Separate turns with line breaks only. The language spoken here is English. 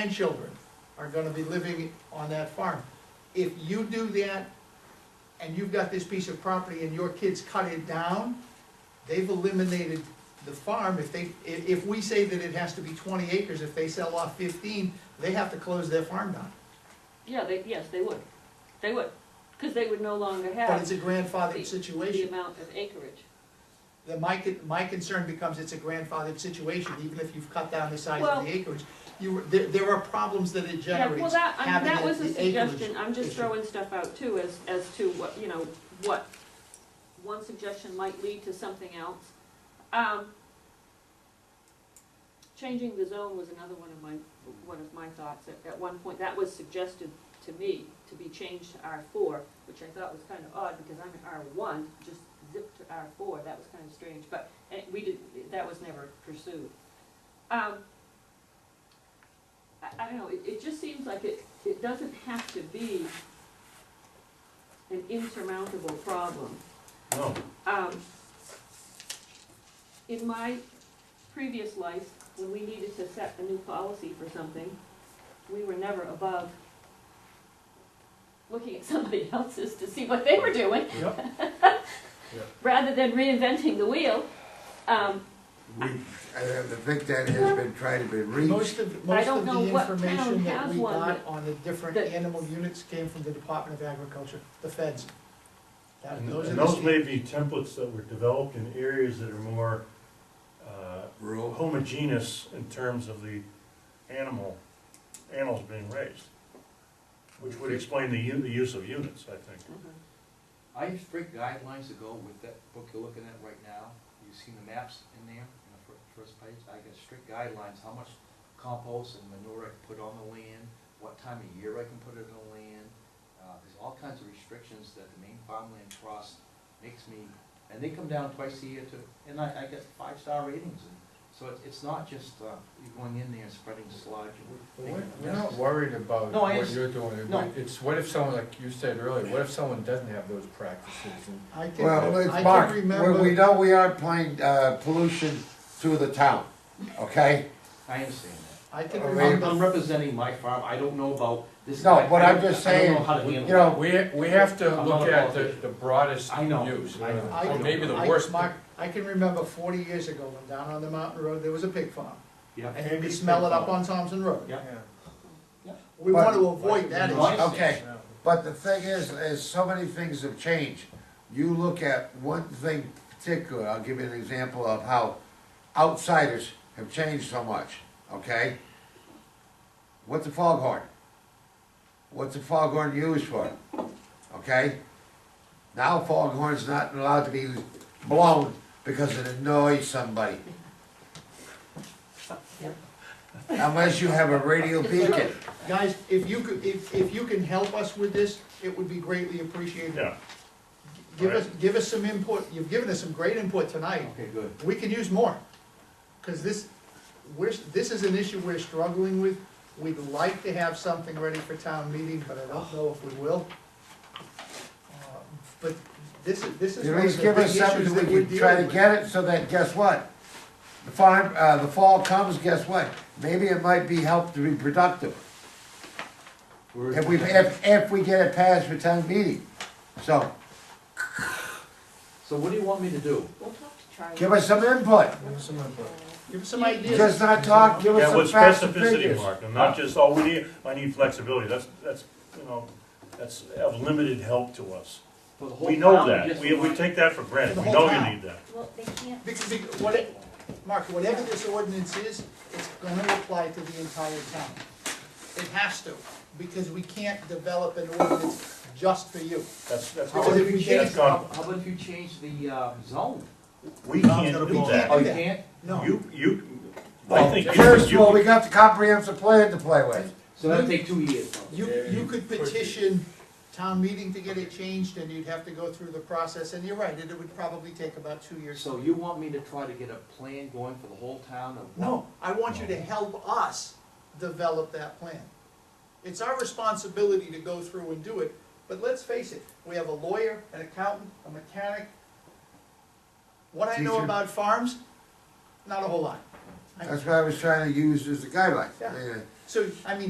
grandchildren are gonna be living on that farm. If you do that, and you've got this piece of property and your kids cut it down, they've eliminated the farm, if they, if, if we say that it has to be twenty acres, if they sell off fifteen, they have to close their farm down.
Yeah, they, yes, they would, they would, because they would no longer
But it's
have
a grandfathered
the
situation.
amount of acreage.
Then my, con- my concern becomes it's a grandfathered situation, even if you've cut down the size of
Well-
the acreage. You, were- there, there are problems that it
Yeah, well,
generates,
that, I mean,
having
that
it-
was a
the acreage
suggestion, I'm just
issue.
throwing stuff out too, as, as to what, you know, what, one suggestion might lead to something else. Um, changing the zone was another one of my, one of my thoughts, at, at one point, that was suggested to me, to be changed to R four, which I thought was kind of odd, because I'm in R one, just zip to R four, that was kind of strange, but, and we did, that was never pursued. Um, I, I don't know, it, it just seems like it, it doesn't have to be an insurmountable problem.
No,
Um, in my previous life, when we needed to set a new policy for something, we were never above looking at somebody else's to see what they were doing,
yep,
rather than reinventing the wheel. Um,
We, I think that has been tried to be reached.
Most of, most
don't
of
know
the
what town
information that
has
we
one
got
that-
on the different
that-
animal units came from the Department of Agriculture, the feds. That-
and
those are
and
the
those
sta-
may be templates that were developed in areas that are more uh,
Rural.
homogeneous in terms of the animal, animals being raised, which would explain the, u- the use of units, I think.
Mm-hmm.
I have strict guidelines to go with that book you're looking at right now. You've seen the maps in there, in the fir- first page. I got strict guidelines, how much compost and manure I can put on the land, what time of year I can put it on the land. Uh, There's all kinds of restrictions that the Maine Farmland Trust makes me, and they come down twice a year to, and I, I get five-star ratings. And So it's, it's not just uh, you going in there and spreading sludge and
We're
making a
we're
mess.
not worried about
No, I
what
underst-
you're doing,
no.
It- it's what if someone, like you said earlier, what if someone doesn't have those practices and
I can,
Well, it's
I
Mark,
can
we
remember.
we know we aren't playing, uh, pollution through the town, okay?
I understand that.
I can
I mean-
I'm,
remember,
I'm representing my farm, I don't know about this.
No, but
I-
I'm just
I
saying,
don't know how to
You
handle it.
know,
We, we have
I'm
to
not
look
a
at the,
politician.
the broadest
I know.
use,
I know.
or
I-
maybe the
I-
worst.
Mark, I can remember forty years ago, when down on the mountain road, there was a pig farm,
Yeah.
and you could smell it up on Thompson Road.
Yeah.
Yeah.
We
But-
want to avoid that issue.
Okay, but the thing is, is so many things have changed. You look at one thing particular, I'll give you an example of how outsiders have changed so much, okay? What's a foghorn? What's a foghorn used for? Okay? Now foghorn's not allowed to be blown because it annoys somebody. Unless you have a radio beacon.
Guys, if you could, if, if you can help us with this, it would be greatly appreciated.
Yeah,
Give us, give us some input, you've given us some great input tonight.
Okay, good.
we can use more, because this, we're, this is an issue we're struggling with. We'd like to have something ready for town meeting, but I don't know if we will. Uh, But this is, this is
At
one of
least
the
give
big
us
issues that
something
we're
we
dealing
can try to
with.
get it, so that, guess what? The farm, uh, the fall comes, guess what? Maybe it might be helped to be productive,
We're-
if we, if, if we get it passed for town meeting. So,
So what do you want me to do?
We'll talk to Charlie.
give us some input,
Some of the-
Give us some ideas.
just not talk, give us
yeah,
some
with
facts and
specificity,
figures.
Mark, and not just, oh, we need, I need flexibility, that's, that's, you know, that's of limited help to us.
For the whole
We know
town,
that,
just
we, we
want-
take that for
For
granted,
the
we
whole
know you
town.
need that.
Well, they can't,
Because, because, what, it- Mark, whatever this ordinance is, it's gonna apply to the entire town. It has to, because we can't develop an ordinance just for you.
That's, that's,
Because if we
that's
change-
gone,
How about if you change the, uh, zone?
we
Tom's
can't
gonna
do
be-
that.
Oh, you
that.
can't?
No.
You, you, I
Well,
think you,
First of all, we
you,
got the comprehensive plan to play with.
So that'll take two years. probably.
You, you could petition town meeting to get it changed, and you'd have to go through the process, and you're right, it would probably take about two years.
So you want me to try to get a plan going for the whole town of?
No, I want you to help us develop that plan. It's our responsibility to go through and do it, but let's face it, we have a lawyer, an accountant, a mechanic. What I know
Teacher.
about farms, not a whole lot.
That's what I was trying to use as a guideline.
Yeah.
Yeah.
So, I mean,